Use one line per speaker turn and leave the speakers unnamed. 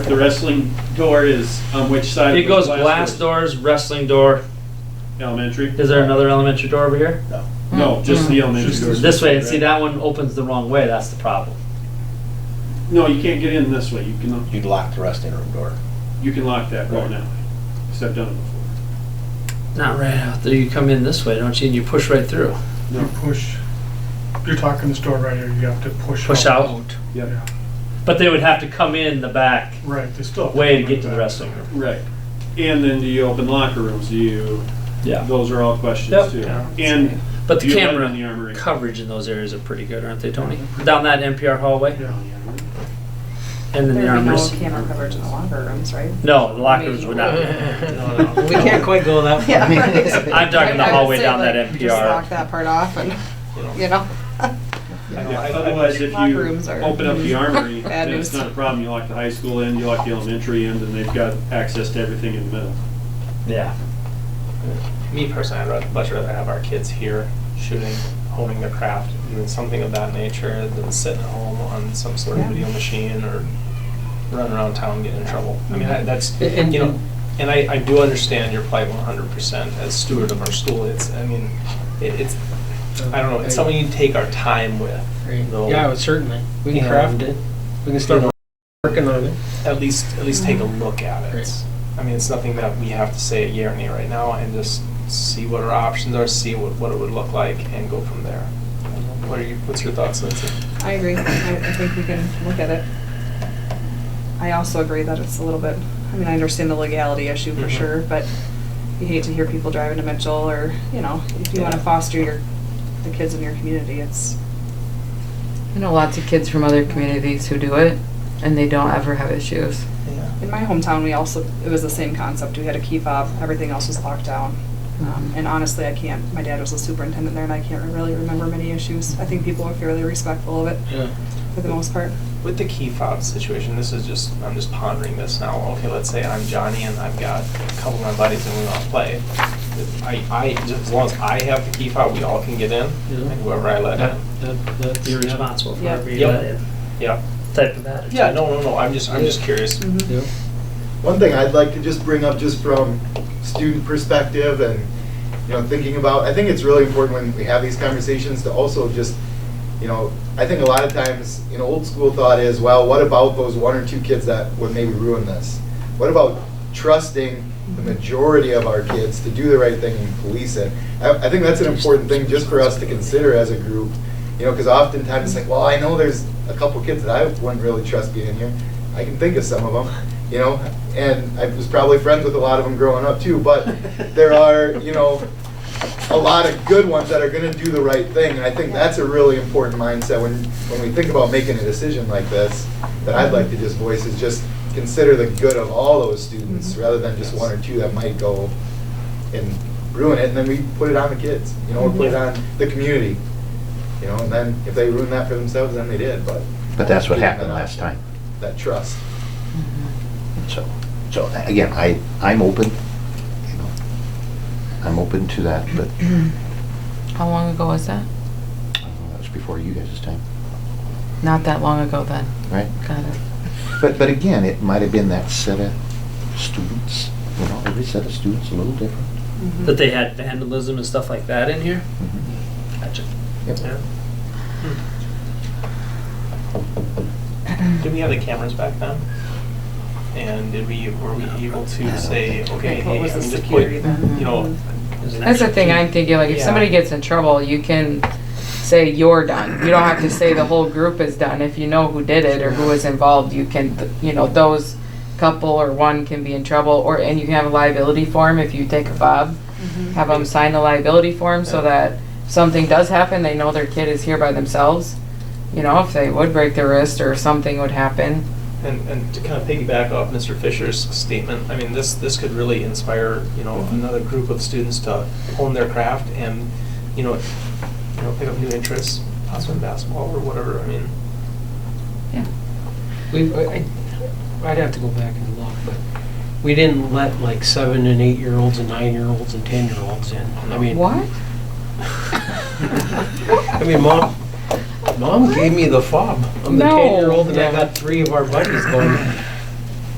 The wrestling door is on which side?
It
of
goes
the
glass
door?
doors, wrestling door.
Elementary?
Is there another elementary door over here?
No, just the elementary door.
This way, and see, that one opens the wrong way, that's the problem.
No, you can't get in this way. You can,
You'd lock the resting room door.
you can lock that door now. Because I've done it before.
Not right out there, you come in this way, don't you, and you push right through.
You push, you're talking this door right here, you have to push.
Oh,
Push out.
Yep,
Yeah,
But they would have to come in the back
right, they still. have
way to
come
get to
back.
the wrestling room.
right. And then do you open locker rooms? Do you,
Yeah.
those are all questions
Yep.
too.
Yeah.
And
But
do
the
you let in
camera
the armory?
coverage in those areas are pretty good, aren't they, Tony? Down that NPR hallway
Yeah.
and then the
There'd be no
armories.
camera coverage in the locker rooms, right?
No, the locker rooms would not. No, no.
We can't quite go that far.
I'm talking the
I would
hallway
say,
down that
like, Just lock
NPR.
that part off and, you know,
Otherwise, if
Locker
you
rooms are-
open up the armory,
Bad
then it's
news.
not a problem. You lock the high school end, you lock the elementary end, and they've got access to everything in the middle.
Yeah.
Me personally, I'd rather, much rather have our kids here shooting, honing their craft, doing something of that nature than sitting at home on some sort of
Yeah.
video machine or running around town getting in trouble. I mean, I- that's,
And- and-
you know, and I, I do understand your plight one hundred percent as steward of our school. It's, I mean, it, it's, I don't know, it's something you take our time with, No.
Yeah, well, certainly. We can craft it. We can start working on it.
at least, at least take a look at it.
Right.
I mean, it's nothing that we have to say yea or nay right now and just see what our options are, see what, what it would look like and go from there. What are you, what's your thoughts, Lindsay?
I agree. I, I think we can look at it. I also agree that it's a little bit, I mean, I understand the legality issue for
Mhm.
sure, but you hate to hear people driving to Mitchell or, you know, if you wanna
Yeah.
foster your, the kids in your community, it's,
I know lots of kids from other communities who do it, and they don't ever have issues.
Yeah.
in my hometown, we also, it was the same concept. We had a key fob, everything else was locked down. Um, and honestly, I can't, my dad was the superintendent there and I can't really remember many issues. I think people are fairly respectful of it
Yeah.
for the most part.
With the key fob situation, this is just, I'm just pondering this now. Okay, let's say I'm Johnny and I've got a couple of my buddies and we want to play. I, I, just as long as I have the key fob, we all can get in
Yeah.
and whoever I let
That,
in.
that, that's.
You're responsible for
Yeah.
whatever you
Yep.
let in.
Yeah.
Type of attitude.
Yeah, no, no, no, I'm just, I'm just curious.
Mhm.
Yeah.
One thing I'd like to just bring up just from student perspective and, you know, thinking about, I think it's really important when we have these conversations to also just, you know, I think a lot of times, you know, old school thought is, well, what about those one or two kids that would maybe ruin this? What about trusting the majority of our kids to do the right thing and police it? I, I think that's an important thing just for us to consider as a group, you know, because oftentimes it's like, well, I know there's a couple kids that I wouldn't really trust being in here. I can think of some of them, you know, and I was probably friends with a lot of them growing up too, but there are, you know, a lot of good ones that are gonna do the right thing, and I think that's a really important mindset when, when we think about making a decision like this, that I'd like to just voice is just consider the good of all those
Mm-hmm.
students, rather than just one or two that might go and ruin it, and then we put it on the kids, you know, or put it
Mm-hmm.
on the community, you know, and then if they ruin that for themselves, then they did, but
But that's what happened last time.
that trust.
Mhm.
So, so again, I, I'm open, you know, I'm open to that, but
How long ago was that?
that was before you guys' time,
Not that long ago then.
right?
Got it.
But, but again, it might have been that set of students, you know, every set of students a little different.
That they had vandalism and stuff like that in here?
Mm-hmm.
Gotcha.
Yep.
Did we have the cameras back then? And did we, were we able to say, okay,
Like, what
hey, I'm
was the
just
security
putting,
then?
you know,
There's an
That's the
extra
thing
key.
I'm thinking, like, if
Yeah.
somebody gets in trouble, you can say you're done. You don't have to say the whole group is done. If you know who did it or who was involved, you can, you know, those couple or one can be in trouble, or, and you can have a liability form if you take a fob.
Mm-hmm.
Have them sign a liability form so that if something does happen, they know their kid is here by themselves. You know, if they would break their wrist or something would happen.
And, and to kind of piggyback off Mr. Fisher's statement, I mean, this, this could really inspire, you know,
Mm-hmm.
another group of students to hone their craft and, you know, you know, pick up new interests, possibly in basketball or whatever, I mean.
We, I, I'd have to go back and look, but we didn't let like seven and eight-year-olds and nine-year-olds and ten-year-olds in. I mean.
What?
I mean, mom, mom gave me the fob. I'm the
No.
ten-year-old and I
Yeah.
got three of our buddies going,